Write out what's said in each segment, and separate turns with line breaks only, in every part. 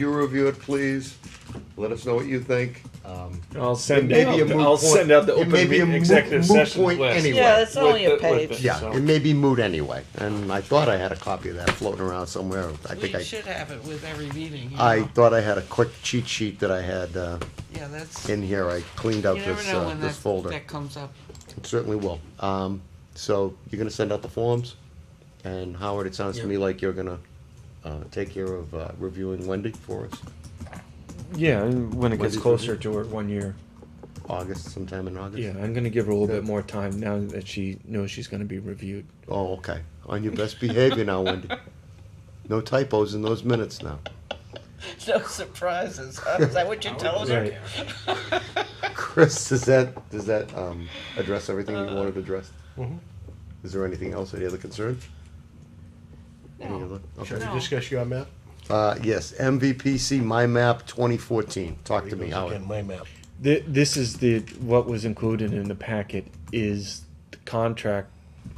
you review it, please. Let us know what you think. Um,
I'll send
Maybe
out,
a
the-
moot
I'll
point.
send out the
It
open
may be a
meeting
moot-
executive
moot
session
point
list.
anyway.
Yeah, it's
With
only
the-
a
with
page.
the-
yeah,
so-
it may be moot anyway. And I thought I had a copy of that floating around somewhere. I think
We
I,
should have it with every meeting. you
I
know?
thought I had a quick cheat sheet that I had uh,
Yeah, that's, you
in here. I cleaned out
never
this
know
uh,
when
this
that,
folder.
that comes up.
It Certainly will. Um, so you're gonna send out the forms, and Howard, it sounds to me like you're gonna uh, take care of uh, reviewing Wendy for us,
Yeah, and when it
When
gets
did-
closer to her one year.
August, sometime in August.
Yeah, I'm gonna give her a little bit more time now that she knows she's gonna be reviewed.
Oh, okay. On your best behavior now, Wendy. No typos in those minutes now.
No surprises, huh? Is that what you're telling her?
Chris, does that does that um, address everything you wanted addressed?
mm-hmm.
Is there anything else? Any other concerns? Any other? Okay.
Should we
No.
discuss your map?
Uh, yes, MVPC My Map 2014. Talk to
Here
me,
goes
Howard.
again, My map.
Th- this is the, what was included in the packet is the contract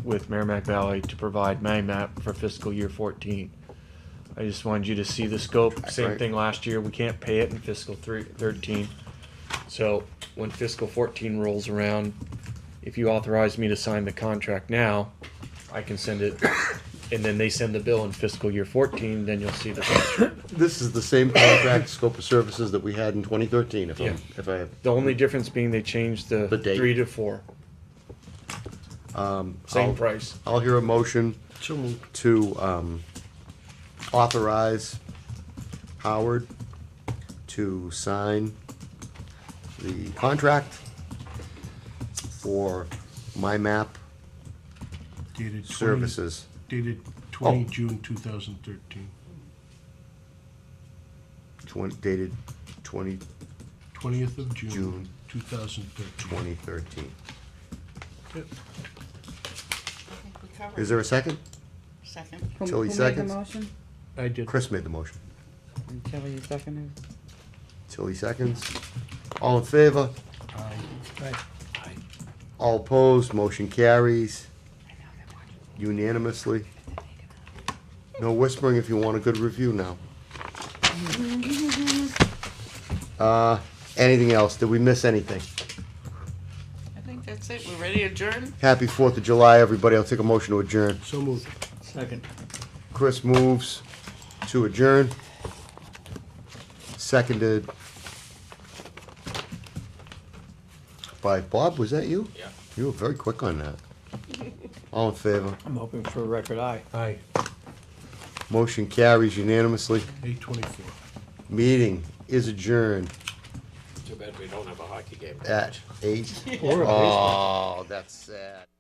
with Merrimack Valley to provide MyMap for fiscal year fourteen. I just wanted you to see the scope, same
Right.
thing last year, we can't pay it in fiscal three, thirteen. So when fiscal fourteen rolls around, if you authorize me to sign the contract now, I can send it. And then they send the bill in fiscal year fourteen, then you'll see the contract.
This is the same contract scope of services that we had in 2013, if I'm,
Yeah.
if I have.
The only difference being they changed the
The date.
three to four,
I'll-
same price.
I'll hear a motion to um, authorize Howard to sign the contract for my map
Dated 20
services.
Dated twenty
Oh.
June two thousand thirteen.
Twen- dated twenty,
Twentieth of June
June.
two thousand thirteen.
twenty thirteen.
I think we covered
Is there a second?
Second.
Who-
Tilly
who made
seconds.
the motion?
I did.
Chris made the motion.
And Tilly seconded.
Tilly seconds. All in favor?
Aye.
All opposed, motion carries unanimously. No whispering if you want a good review now. Uh, anything else? Did we miss anything?
I think that's it. We're ready to adjourn?
Happy Fourth of July, everybody. I'll take a motion to adjourn.
So moved.
Chris moves to adjourn. Seconded by Bob, was that you? Yeah. You were very quick on that. All in favor?
I'm hoping for a record eye.
Aye.
Motion carries unanimously.
Eight twenty-four.
Meeting is adjourned
Too bad we don't have a hockey game.
at eight. Oh, that's sad.